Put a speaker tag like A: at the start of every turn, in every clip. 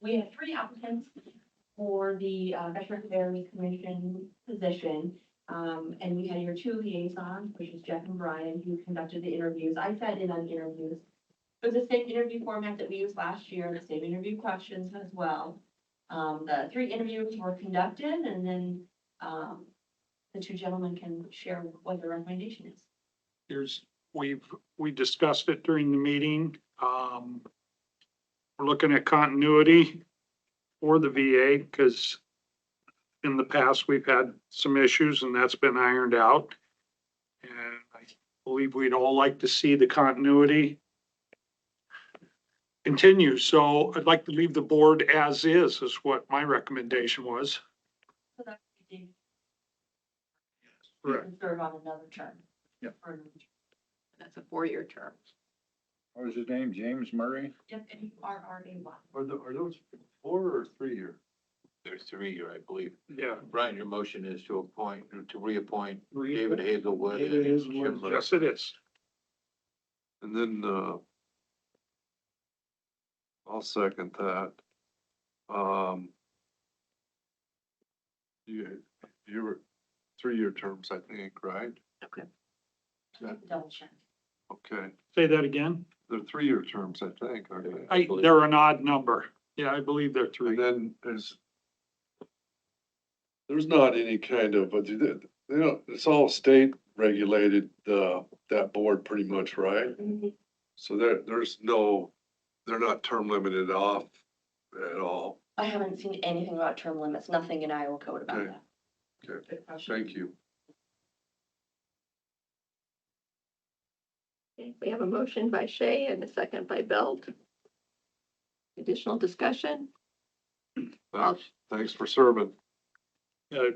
A: we have three applicants for the uh, Veteran Affairs Commission position. Um, and we had your two liaisons, which is Jeff and Brian, who conducted the interviews. I sat in on the interviews. It was the same interview format that we used last year, the same interview questions as well. Um, the three interviews were conducted and then, um, the two gentlemen can share what their recommendation is.
B: There's, we've, we discussed it during the meeting. Um, we're looking at continuity for the VA because in the past, we've had some issues and that's been ironed out. And I believe we'd all like to see the continuity continue. So I'd like to leave the board as is, is what my recommendation was.
A: So that's what we did.
B: Correct.
A: You can Serve on another term.
B: Yep.
A: For another term.
C: That's a four-year term.
D: What was his name? James Murray?
A: Yep, and you are already one.
E: Are the, are those four or three year?
F: They're three-year, I believe.
B: Yeah.
F: Brian, your motion is to appoint, to reappoint David Hazelwood and
E: David Hazelwood.
F: Jim Lewis.
B: Yes, it is.
E: And then, uh, I'll second that. Um, you, you were, three-year terms, I think, right? Yeah.
A: Double check.
E: Okay,
B: Say that again.
E: they're three-year terms, I think, aren't they?
B: I, they're an odd number. Yeah, I believe they're three.
E: And then there's, there's not any kind of, but they, they don't, it's all state regulated, uh, that board pretty much, right? So there, there's no, they're not term limited off at all.
A: I haven't seen anything about term limits, nothing in Iowa code about
E: Okay.
A: that.
E: Okay.
A: Good question.
E: Thank you.
C: Okay, We have a motion by Shay and a second by Belt. Additional discussion? I'll-
E: Thanks, thanks for serving.
B: Uh,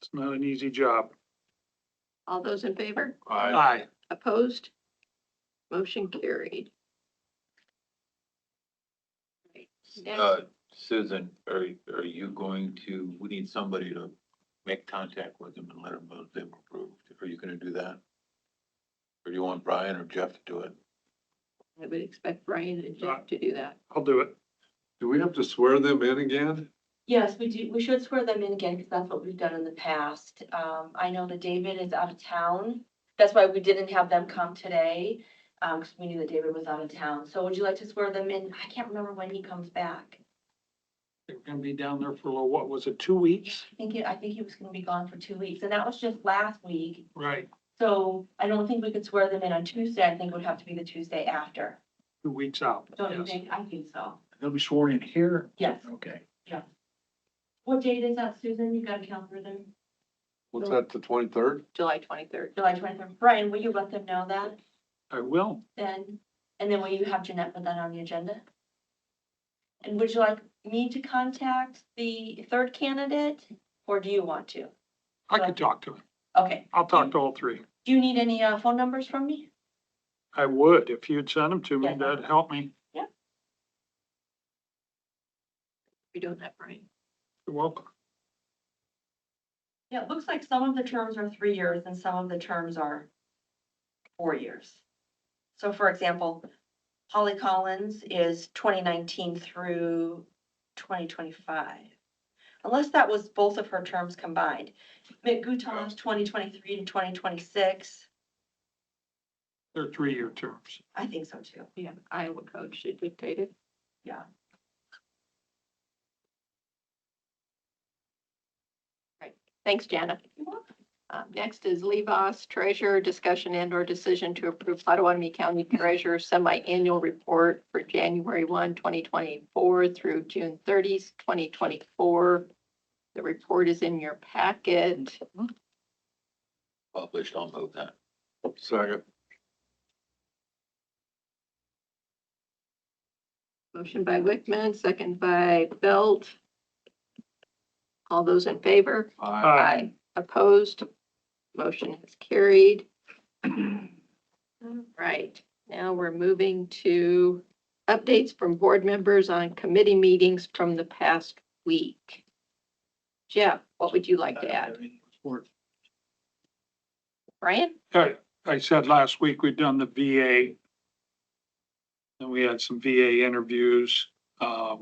B: It's not an easy job.
C: All those in favor?
E: I,
B: Aye.
C: Opposed? Motion carried.
F: Uh, Susan, are, are you going to, we need somebody to make contact with them and let them know they've approved. Are you gonna do that? Or do you want Brian or Jeff to do it?
C: I would expect Brian and Jeff to do that.
B: I'll do it.
E: do we have to swear them in again?
A: Yes, we do, we should swear them in again, because that's what we've done in the past. Um, I know that David is out of town. That's why we didn't have them come today, um, because we knew that David was out of town. So would you like to swear them in? I can't remember when he comes back.
B: They're gonna be down there for, a little- what was it, two weeks?
A: I think, it- I think he was gonna be gone for two weeks, and that was just last week.
B: Right.
A: So I don't think we could swear them in on Tuesday. I think it would have to be the Tuesday after.
B: Two weeks out.
A: Don't you
B: Yes.
A: think? I think so.
D: They'll be sworn in here?
A: Yes.
D: Okay.
A: What date is that, Susan? You got a calendar there?
E: What's that, the twenty-third?
C: July twenty-third.
A: July twenty-third. Brian, will you let them know that
B: I will.
A: then? And then will you have Jeanette put that on the agenda? And would you like me to contact the third candidate or do you want to?
B: I could talk to him.
A: Okay.
B: I'll talk to all three.
A: Do you need any, uh, phone numbers from me?
B: I would, if you'd send them to me,
A: Yeah.
B: that'd help me.
C: We don't have Brian.
B: You're welcome.
A: Yeah, it looks like some of the terms are three years and some of the terms are four years. So for example, Holly Collins is twenty nineteen through twenty twenty-five. Unless that was both of her terms combined. Mick Guton is twenty twenty-three to twenty twenty-six.
B: They're three-year terms.
A: I think so too.
C: Yeah, Iowa code should dictate it.
A: Yeah.
C: Right, thanks, Jana.
A: You're welcome.
C: Um, next is Levos Treasurer Discussion and or Decision to Approve Potawatomi County Treasurer Semi-Annual Report for January 1, 2024 through June 30, 2024. The report is in your packet.
F: Published, I'll move that.
E: Second,
C: Motion by Wickman, second by Belt. All those in favor?
E: I,
C: Aye. Opposed? Motion is carried. All right, now we're moving to updates from board members on committee meetings from the past week. Jeff, what would you like to add? Brian?
B: I, I said last week, we'd done the VA. And we had some VA interviews. Um,